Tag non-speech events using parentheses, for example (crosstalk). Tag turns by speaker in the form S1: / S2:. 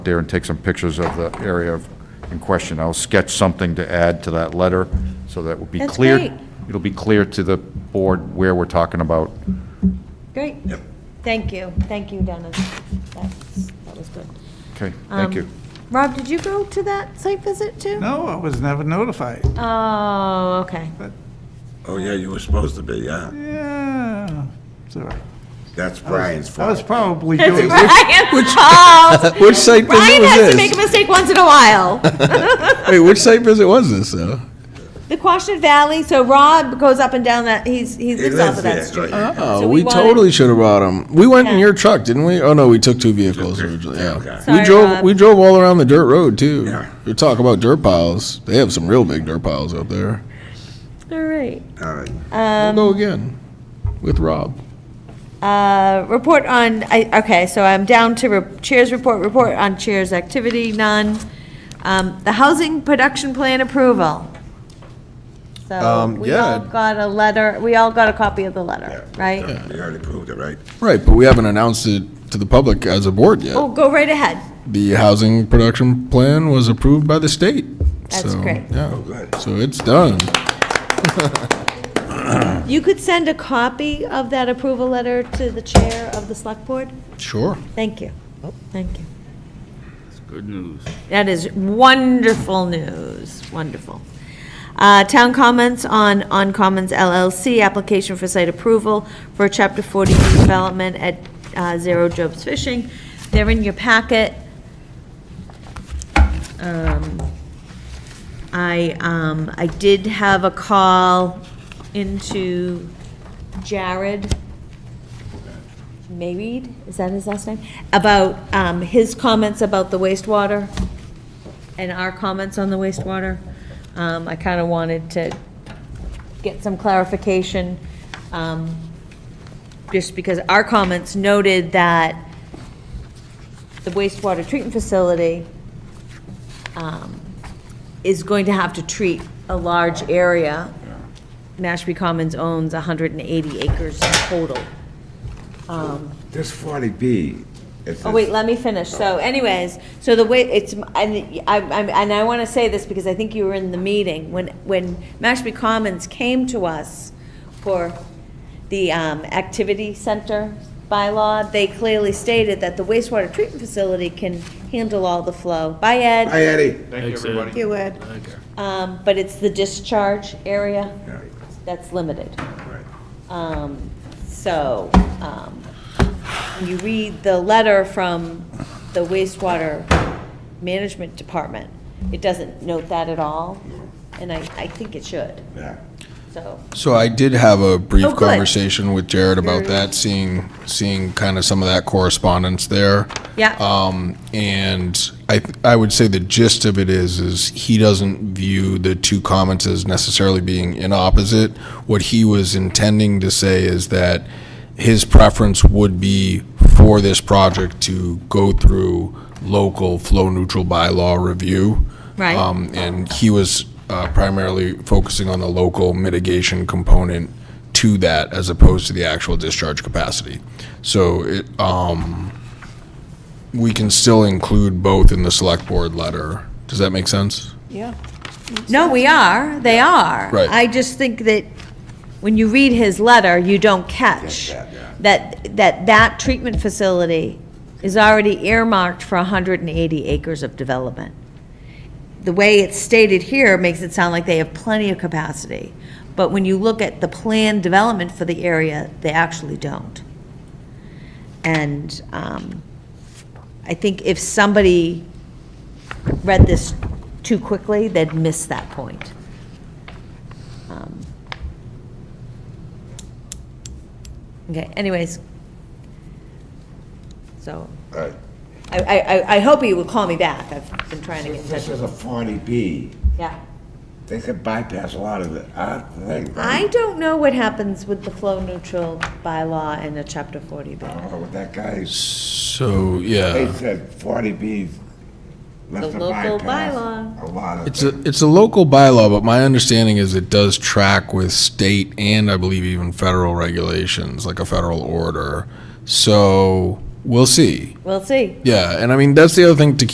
S1: there and take some pictures of the area of- in question. I'll sketch something to add to that letter, so that will be
S2: That's
S1: clear.
S2: great.
S1: It'll be clear to the board where we're talking about.
S2: Great. Yep. Thank you, thank you, Dennis. That's- That was good.
S1: Okay, thank
S2: Um,
S1: you.
S2: Rob, did you go to that site visit too?
S3: No, I was never notified.
S2: Oh, okay.
S4: Oh, yeah, you were supposed to be, yeah.
S3: Yeah, it's all right.
S4: That's Brian's
S3: I was
S4: fault.
S3: probably doing,
S2: Brian
S5: (laughs)
S2: Charles.
S5: Which site visit
S2: Brian
S5: was
S2: has to make a
S5: this?
S2: mistake once in a while.
S5: Wait, which site visit was this, though?
S2: The Quashnet Valley, so Rob goes up and down that, he's, he
S4: He
S2: lives off of
S4: lives
S2: that
S4: there,
S2: street.
S4: right.
S2: So
S5: Oh,
S2: we
S5: we
S2: wanted-
S5: totally should have brought him. We went in
S2: Yeah.
S5: your truck, didn't we? Oh, no, we took two vehicles originally,
S4: okay.
S5: yeah.
S2: Sorry,
S5: We drove,
S2: Rob.
S5: we drove all around the dirt road, too.
S4: Yeah.
S5: You talk about dirt piles, they have some real big dirt piles out there.
S2: All right.
S4: All right.
S5: We'll
S2: Um,
S5: go again with Rob.
S2: Uh, Report on, I, okay, so I'm down to re- Cheers report, report on Cheers activity, none. Um, The housing production plan approval. So
S5: Um,
S2: we all
S5: yeah.
S2: got a letter, we all got a copy of the letter, right?
S4: We already proved it, right?
S5: Right, but we haven't announced it to the public as a board
S2: Oh,
S5: yet.
S2: go right ahead.
S5: The housing production plan was approved by the state.
S2: That's
S5: so,
S2: great.
S5: Yeah,
S4: Good.
S5: so it's done.
S2: You could send a copy of that approval letter to the chair of the select board?
S5: Sure.
S2: Thank you. Thank you. That's good news. That is wonderful news, wonderful. Uh, Town comments on, on Commons LLC, application for site approval for Chapter 40 development at uh, Zero Jobs Fishing. They're in your packet. Um, I, um, I did have a call into Jared Mayweed, is that his last name? About um, his comments about the wastewater and our comments on the wastewater. Um, I kind of wanted to get some clarification, um, just because our comments noted that the wastewater treatment facility um, is going to have to treat a large area. Mashpee Commons owns 180 acres total. Um,
S4: This 40B. it's-
S2: Oh, wait, let me finish. So anyways, so the way, it's, and I, I'm- and I want to say this because I think you were in the meeting, when, when Mashpee Commons came to us for the um, activity center bylaw, they clearly stated that the wastewater treatment facility can handle all the flow. By Ed,
S4: Hi, Eddie.
S2: you Ed. Um, But it's the discharge area
S4: Yeah,
S2: that's limited.
S4: right.
S2: Um, So, um, when you read the letter from the wastewater management department, it doesn't note that at all, and I, I think it should,
S4: Yeah.
S2: so.
S5: So I did have a
S2: Oh,
S5: brief
S2: good.
S5: conversation with Jared about
S2: Very-
S5: that, seeing, seeing kind of some of that correspondence there.
S2: Yeah,
S5: Um, and I, th- I would say the gist of it is, is he doesn't view the two comments as necessarily being in opposite. What he was intending to say is that his preference would be for this project to go through local flow neutral bylaw review.
S2: Right.
S5: Um, and he was uh, primarily focusing on the local mitigation component to that as opposed to the actual discharge capacity. So it, um, we can still include both in the select board letter. Does that make sense?
S2: no, we are, they are.
S5: Right.
S2: I just think that when you read his letter, you don't catch
S4: Catch that, yeah.
S2: that, that that treatment facility is already earmarked for 180 acres of development. the way it's stated here makes it sound like they have plenty of capacity. But when you look at the planned development for the area, they actually don't. And um, I think if somebody read this too quickly, they'd miss that point. Um, Okay, anyways. So
S4: All right.
S2: I, I, I- I hope you will call me back. I've been trying to get in touch
S4: This
S2: with
S4: is a 40B.
S2: Yeah.
S4: They could bypass a lot of the, our thing.
S2: I
S4: right?
S2: don't know what happens with the flow neutral bylaw and a chapter forty B.
S4: I don't know what that guy,
S5: So,
S4: they
S5: yeah.
S4: said 40B's left
S2: The
S4: to
S2: local
S4: bypass
S2: bylaw.
S4: a lot of
S5: It's
S4: things.
S5: a, it's a local bylaw, but my understanding is it does track with state and I believe even federal regulations, like a federal order. So we'll see.
S2: We'll see.
S5: Yeah, and I mean, that's the other thing to keep